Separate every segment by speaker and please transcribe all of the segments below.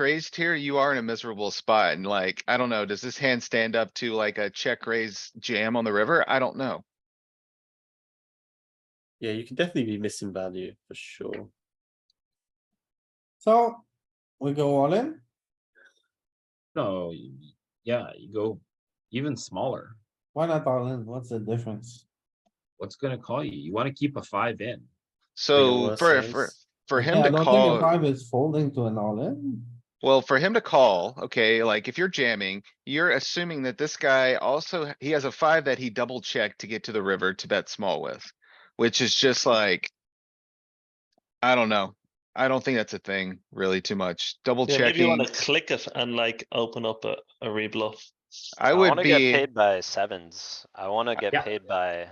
Speaker 1: raised here, you are in a miserable spot and like, I don't know, does this hand stand up to like a check raise jam on the river? I don't know.
Speaker 2: Yeah, you can definitely be missing value for sure.
Speaker 3: So we go all in.
Speaker 4: No, y- yeah, you go even smaller.
Speaker 3: Why not all in? What's the difference?
Speaker 4: What's gonna call you? You wanna keep a five in.
Speaker 1: So
Speaker 2: Vanilla
Speaker 1: Oh, for,
Speaker 2: size.
Speaker 1: for, for
Speaker 3: Yeah,
Speaker 1: him
Speaker 3: I
Speaker 1: to
Speaker 3: don't think a
Speaker 1: call,
Speaker 3: Five is folding to an all in.
Speaker 1: well, for him to call, okay, like if you're jamming, you're assuming that this guy also, he has a five that he double checked to get to the river to bet small with, which is just like. I don't know. I don't think that's a thing really too much. Double
Speaker 5: Yeah, maybe you
Speaker 1: checking.
Speaker 5: wanna click it and like open up a, a rebluff.
Speaker 1: I would
Speaker 6: wanna
Speaker 1: be-
Speaker 6: get paid by sevens. I wanna get paid by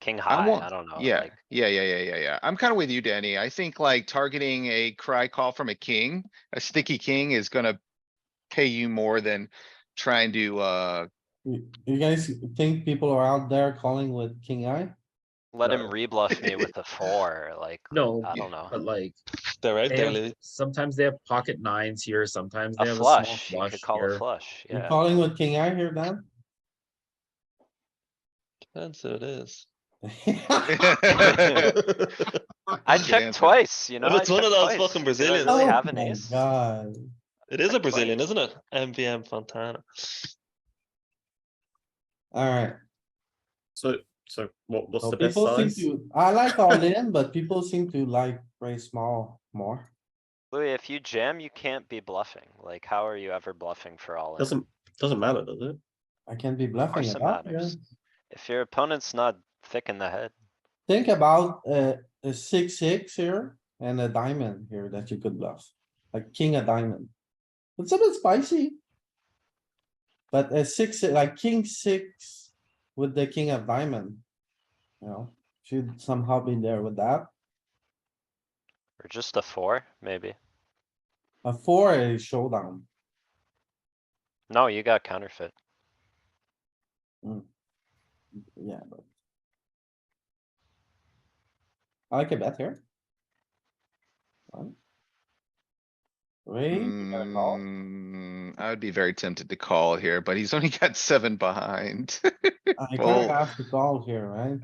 Speaker 6: king high,
Speaker 1: want-
Speaker 6: I don't know.
Speaker 1: Yeah,
Speaker 6: like,
Speaker 1: yeah, yeah, yeah, yeah, yeah. I'm kinda with you, Danny. I think like targeting a cry call from a king, a sticky king is gonna pay you more than trying to, uh,
Speaker 3: You you guys think people are out there calling with king eye?
Speaker 6: Let him
Speaker 4: No.
Speaker 6: rebluff me with a four, like,
Speaker 4: No,
Speaker 6: I
Speaker 1: yeah,
Speaker 6: don't know.
Speaker 4: but like,
Speaker 5: They're out
Speaker 4: they
Speaker 5: there,
Speaker 4: have-
Speaker 5: Louis.
Speaker 4: sometimes they have pocket nines here, sometimes they
Speaker 6: A
Speaker 4: have a small
Speaker 6: flush, you
Speaker 4: flush
Speaker 6: could call a
Speaker 4: here.
Speaker 6: flush,
Speaker 3: You're
Speaker 6: yeah.
Speaker 3: calling with king eye here, Dan?
Speaker 5: Depends who it is.
Speaker 6: I
Speaker 1: Good
Speaker 6: checked
Speaker 1: answer.
Speaker 6: twice, you know?
Speaker 5: Well,
Speaker 6: I
Speaker 5: it's one of
Speaker 6: checked
Speaker 5: those
Speaker 6: twice.
Speaker 5: fucking
Speaker 6: Did I
Speaker 5: Brazilians.
Speaker 6: really
Speaker 3: Oh
Speaker 6: have an
Speaker 3: my
Speaker 6: ace?
Speaker 3: God.
Speaker 5: It is a
Speaker 6: Like what?
Speaker 5: Brazilian, isn't it? MVM Fontana.
Speaker 3: Alright,
Speaker 2: So, so what, what's
Speaker 3: so
Speaker 2: the best
Speaker 3: people seem
Speaker 2: size?
Speaker 3: to, I like all in, but people seem to like very small more.
Speaker 6: Louis, if you jam, you can't be bluffing. Like, how are you ever bluffing for all in?
Speaker 2: Doesn't, doesn't matter, does it?
Speaker 3: I can be
Speaker 6: Of
Speaker 3: bluffing
Speaker 6: course it
Speaker 3: about here.
Speaker 6: matters. If your opponent's not thick in the head,
Speaker 3: Think about uh, a six, six here and a diamond here that you could bluff, like king of diamond. It's a bit spicy. But a six, like king six with the king of diamond. You know, should somehow be there with that.
Speaker 6: or just a four, maybe.
Speaker 3: A four is showdown.
Speaker 6: No, you got counterfeit.
Speaker 3: Yeah, but. I like a bet here. One. Three, you gotta call.
Speaker 1: Mm, I would be very tempted to call here, but he's only got seven behind.
Speaker 3: I
Speaker 1: Fold.
Speaker 3: gotta ask the call here, right?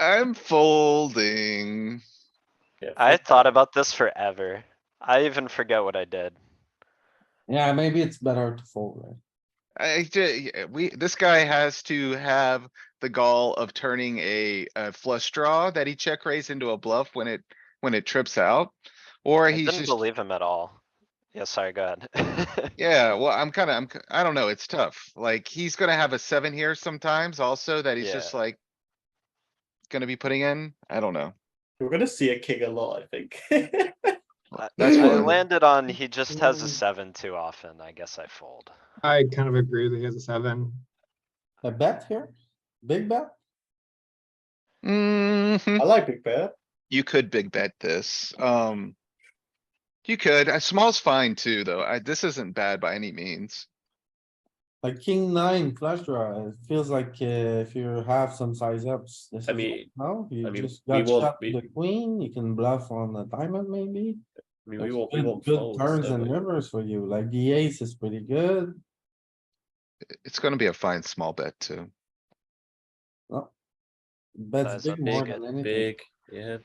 Speaker 1: I'm folding.
Speaker 2: Yeah,
Speaker 6: I
Speaker 2: fuck
Speaker 6: thought about this forever. I even forget what I did.
Speaker 3: Yeah, maybe it's better to fold, right?
Speaker 1: I ju- yeah, we, this guy has to have the gall of turning a, a flush draw that he check raised into a bluff when it, when it trips out. Or
Speaker 6: I
Speaker 1: he's
Speaker 6: didn't
Speaker 1: just,
Speaker 6: believe him at all. Yeah, sorry, go ahead.
Speaker 1: yeah, well, I'm kinda, I'm, ki- I don't know, it's tough. Like, he's gonna have a seven here sometimes also that he's just like. Gonna be putting in, I don't know.
Speaker 2: We're gonna see a king a lot, I think.
Speaker 6: I-
Speaker 1: That's
Speaker 6: I
Speaker 1: fine.
Speaker 6: landed on, he just has
Speaker 3: Mm.
Speaker 6: a seven too often, I guess I fold.
Speaker 7: I kind of agree that he has a seven.
Speaker 3: A bet here, big bet,
Speaker 1: Mhm.
Speaker 2: I like big bet.
Speaker 1: You could big bet this, um. You could, uh, small's fine too, though. I, this isn't bad by any means.
Speaker 3: like king nine flush draw, it feels like uh, if you have some size ups. this
Speaker 2: I
Speaker 3: is-
Speaker 2: mean-
Speaker 3: No,
Speaker 2: I
Speaker 3: you
Speaker 2: mean,
Speaker 3: just
Speaker 2: we
Speaker 3: got
Speaker 2: will-
Speaker 3: shot with
Speaker 2: we-
Speaker 3: the queen, you can bluff on the diamond maybe.
Speaker 2: I mean, we
Speaker 3: There's
Speaker 2: want, we
Speaker 3: good-
Speaker 2: want
Speaker 3: Good
Speaker 2: folds.
Speaker 3: turns
Speaker 2: don't
Speaker 3: and
Speaker 2: we?
Speaker 3: rivers for you, like the ace is pretty good,
Speaker 1: It's gonna be a fine small bet too.
Speaker 3: bets
Speaker 6: Size up
Speaker 3: big more
Speaker 6: big,
Speaker 3: than anything.
Speaker 2: Big, yeah.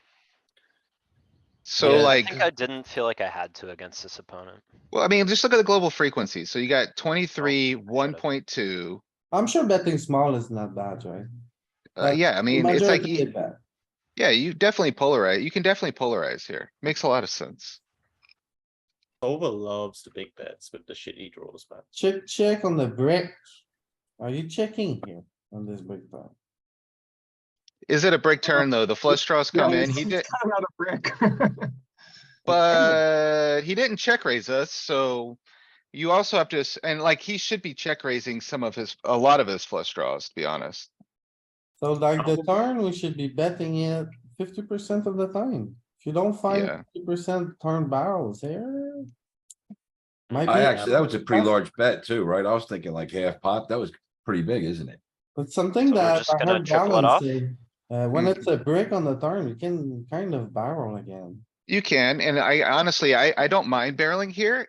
Speaker 1: So
Speaker 2: Yeah.
Speaker 6: I
Speaker 1: like.
Speaker 6: think I didn't feel like I had to against this opponent.
Speaker 1: Well, I mean, just look at the global frequency. So you got twenty-three,
Speaker 6: Oh, I got it.
Speaker 1: one point two.
Speaker 3: I'm sure betting small is not bad, right?
Speaker 1: Uh,
Speaker 3: Uh,
Speaker 1: yeah, I mean, it's like,
Speaker 3: Majority
Speaker 1: you-
Speaker 3: big bet.
Speaker 1: yeah, you definitely polarize. You can definitely polarize here. Makes a lot of sense.
Speaker 2: Solver loves the big bets with the shitty draws, man.
Speaker 3: Check, check on the brick. Are you checking here on this big bet?
Speaker 1: Is it a brick turn though? The flush draws come in. He did,
Speaker 7: Kind of a brick.
Speaker 1: but he didn't check raise us, so. You also have to, s- and like, he should be check raising some of his, a lot of his flush draws, to be honest.
Speaker 3: So like the turn, we should be betting it fifty percent of the time. If you don't find
Speaker 1: Yeah.
Speaker 3: fifty percent turn barrels here. Might
Speaker 8: I
Speaker 3: be,
Speaker 8: actually, that was a pretty
Speaker 3: That's-
Speaker 8: large bet too, right? I was thinking like half pot. That was pretty big, isn't it?
Speaker 3: but something
Speaker 6: So we're
Speaker 3: that
Speaker 6: just
Speaker 3: I
Speaker 6: gonna
Speaker 3: heard
Speaker 6: triple it
Speaker 3: Galen
Speaker 6: off?
Speaker 3: say, uh, when it's a brick on the turn, you can kind of barrel again.
Speaker 1: You can, and I honestly, I, I don't mind barreling here.